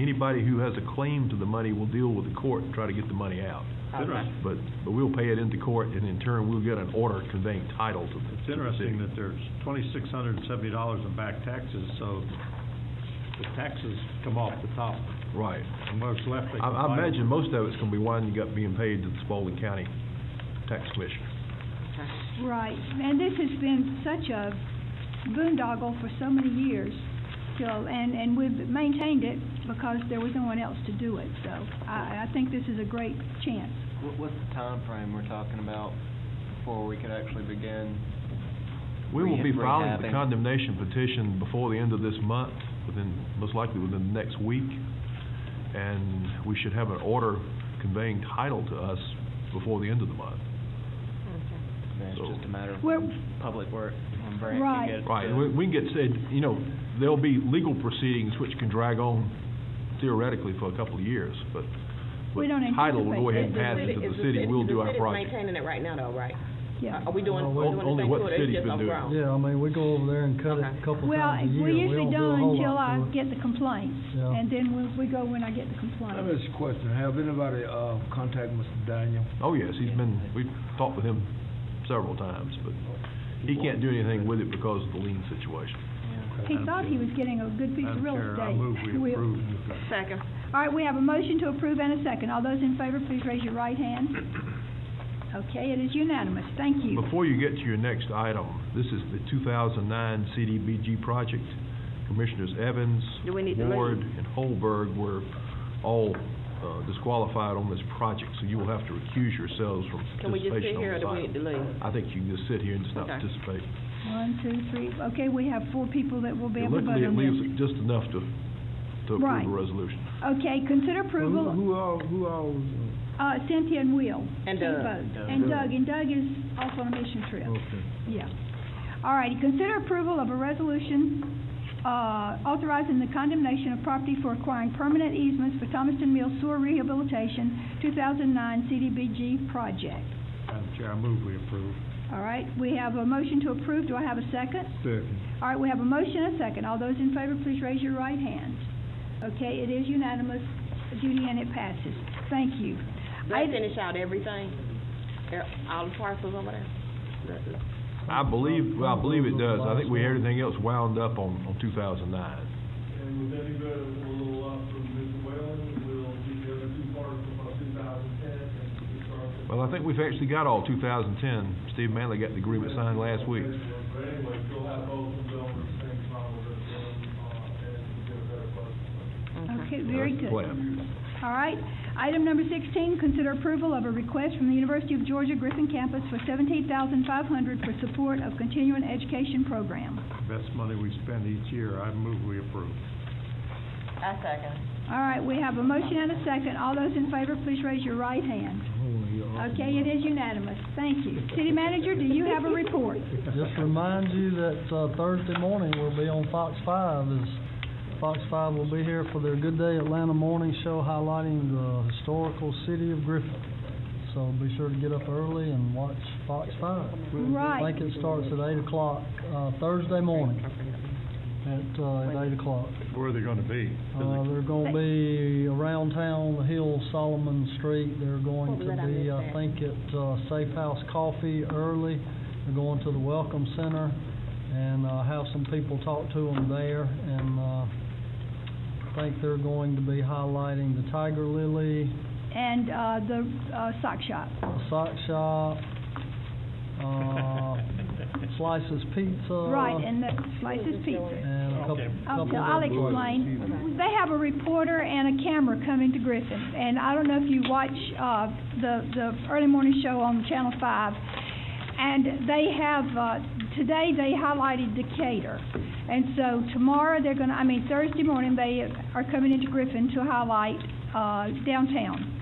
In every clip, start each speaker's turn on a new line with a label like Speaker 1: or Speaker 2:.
Speaker 1: Anybody who has a claim to the money will deal with the court and try to get the money out.
Speaker 2: It's interesting,
Speaker 1: But, but we'll pay it into court, and in turn, we'll get an order conveying title to the...
Speaker 2: it's interesting that there's twenty-six hundred and seventy dollars in back taxes, so the taxes come off the top,
Speaker 1: Right.
Speaker 2: and what's left they
Speaker 1: I,
Speaker 2: can
Speaker 1: I
Speaker 2: find.
Speaker 1: imagine most of it's gonna be winding up being paid to the Spalding County Tax Commission.
Speaker 3: Right, and this has been such a boondoggle for so many years, so, and, and we've maintained it because there was no one else to do it, so I, I think this is a great chance.
Speaker 4: What, what's the timeframe we're talking about before we could actually begin?
Speaker 1: We will be
Speaker 4: Rehab-
Speaker 1: filing the
Speaker 4: rehabbing.
Speaker 1: condemnation petition before the end of this month, within, most likely within the next week. And we should have an order conveying title to us before the end of the month.
Speaker 4: Then it's
Speaker 1: So-
Speaker 4: just a matter of
Speaker 3: Well-
Speaker 4: when public work, when Brant
Speaker 3: Right.
Speaker 4: can get it.
Speaker 1: Right,
Speaker 4: to-
Speaker 1: and we, we can get said, you know, there'll be legal proceedings which can drag on theoretically for a couple of years, but, but
Speaker 3: We don't
Speaker 1: title will go ahead and pass
Speaker 3: anticipate that.
Speaker 1: it to the city, we'll do our project.
Speaker 5: maintaining it right now though, right?
Speaker 3: Yeah.
Speaker 5: Are we doing,
Speaker 6: No,
Speaker 5: we're doing
Speaker 1: only
Speaker 5: the same
Speaker 1: what
Speaker 5: to
Speaker 1: the
Speaker 5: it, it's
Speaker 1: city's
Speaker 5: just
Speaker 1: been doing.
Speaker 5: overgrown?
Speaker 6: Yeah, I mean, we go over there and cut it
Speaker 5: Okay.
Speaker 6: a couple
Speaker 3: Well,
Speaker 6: times a year.
Speaker 3: we usually
Speaker 6: don't do a
Speaker 3: don't
Speaker 6: whole
Speaker 3: until I
Speaker 6: lot to it.
Speaker 3: get the complaint,
Speaker 6: Yeah.
Speaker 3: and then we, we go when I get
Speaker 7: I
Speaker 3: the
Speaker 7: have
Speaker 3: complaint.
Speaker 7: a question. Have anybody, uh, contacted Mr. Daniel?
Speaker 1: Oh, yes, he's been, we've talked with him several times, but he can't do anything with it because of the lien situation.
Speaker 3: He thought he was getting a good piece of
Speaker 2: Madam
Speaker 3: real
Speaker 2: Chair, I
Speaker 3: estate.
Speaker 2: move we
Speaker 3: We'll-
Speaker 2: approve.
Speaker 5: Second.
Speaker 3: All right, we have a motion to approve and a second. All those in favor, please raise your right hand. Okay, it is unanimous, thank you.
Speaker 1: Before you get to your next item, this is the 2009 CDBG project. Commissioners Evans,
Speaker 5: Do we need to
Speaker 1: Ward,
Speaker 5: leave?
Speaker 1: and Holberg were all uh, disqualified on this project, so you will have to recuse yourselves from
Speaker 5: Can we just
Speaker 1: participation
Speaker 5: sit here or do we
Speaker 1: on
Speaker 5: need
Speaker 1: this
Speaker 5: to
Speaker 1: item.
Speaker 5: leave?
Speaker 1: I think you can just sit here and just not
Speaker 5: Okay.
Speaker 1: participate.
Speaker 3: One, two, three, okay, we have four people that will be able to vote
Speaker 1: Luckily, it
Speaker 3: on
Speaker 1: leaves
Speaker 3: this.
Speaker 1: just enough to, to approve
Speaker 3: Right.
Speaker 1: the resolution.
Speaker 3: Okay, consider
Speaker 7: Who-
Speaker 3: approval,
Speaker 7: Who all, who all, was,
Speaker 3: uh, Cynthia and Will.
Speaker 5: And uh,
Speaker 3: to
Speaker 5: Doug.
Speaker 3: vote. And Doug, and Doug is off on a mission
Speaker 7: uh,
Speaker 3: trip,
Speaker 7: okay.
Speaker 3: yeah. All righty, consider approval of a resolution, uh, authorizing the condemnation of property for acquiring permanent easements for Thomaston Mills Sewer Rehabilitation, two thousand nine CDBG project.
Speaker 2: Madam Chair, I move we approve.
Speaker 3: All right, we have a motion to approve, do I have a second?
Speaker 7: Second.
Speaker 3: All right, we have a motion and a second. All those in favor, please raise your right hand. Okay, it is unanimous, Judy, and it passes. Thank you.
Speaker 5: They finish out everything, Er- all the parcels over there? Let- let-
Speaker 1: I believe, well, I believe it does. I think we had everything else wound up on, on 2009.
Speaker 8: And with any better, we'll roll up from Mr. Whalen, we'll get the other two parts about two thousand ten, and we start. with-
Speaker 1: Well, I think we've actually got all 2010. Steve Manley got the agreement signed last week.
Speaker 8: But anyway, we'll have both of them at the same time, with us, uh, and we'll get a better budget.
Speaker 3: Okay, very
Speaker 1: That's the
Speaker 3: good.
Speaker 1: plan.
Speaker 3: All right, item number sixteen, consider approval of a request from the University of Georgia Griffin Campus for seventeen thousand five hundred for support of continuing education program.
Speaker 2: Best money we spend each year, I move we approve.
Speaker 5: I second.
Speaker 3: All right, we have a motion and a second. All those in favor, please raise your right hand. Okay, it is unanimous. Thank you. City Manager, do you have a report?
Speaker 6: Just remind you that uh, Thursday morning, we'll be on Fox Five, as Fox Five will be here for their Good Day Atlanta Morning Show highlighting the historical city of Griffin. So be sure to get up early and watch Fox Five.
Speaker 3: Right.
Speaker 6: I think it starts at eight o'clock, uh, Thursday morning, at, uh, at eight o'clock.
Speaker 2: Where are they gonna be?
Speaker 6: Uh, they're gonna be around town, the Hill, Solomon Street, they're going
Speaker 5: What was
Speaker 6: to
Speaker 5: that I
Speaker 6: be,
Speaker 5: missed
Speaker 6: I
Speaker 5: that?
Speaker 6: think, at, uh, Safe House Coffee early. They're going to the Welcome Center and, uh, have some people talk to them there and, uh, I think they're going to be highlighting the Tiger Lily,
Speaker 3: And, uh, the, uh, sock shop.
Speaker 6: the Sock Shop, uh, Slices Pizza.
Speaker 3: Right, and the slices pizza.
Speaker 6: And a couple,
Speaker 2: Okay.
Speaker 6: couple
Speaker 3: Okay, I'll
Speaker 6: of-
Speaker 3: explain. They have a reporter and a camera coming to Griffin, and I don't know if you watch, uh, the, the early morning show on Channel Five. And they have, uh, today they highlighted Decatur. And so tomorrow they're gonna, I mean, Thursday morning, they are coming into Griffin to highlight, uh, downtown.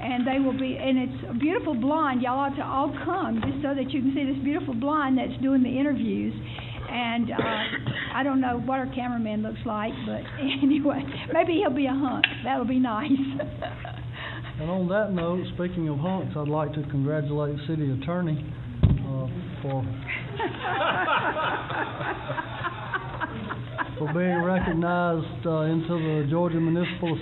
Speaker 3: And they will be, and it's a beautiful blonde, y'all ought to all come, just so that you can see this beautiful blonde that's doing the interviews. And, uh, I don't know what our cameraman looks like, but anyway, maybe he'll be a hunk, that'll be nice.
Speaker 6: And on that note, speaking of hunks, I'd like to congratulate the city attorney, uh, for, for being recognized, uh, into the Georgia Municipal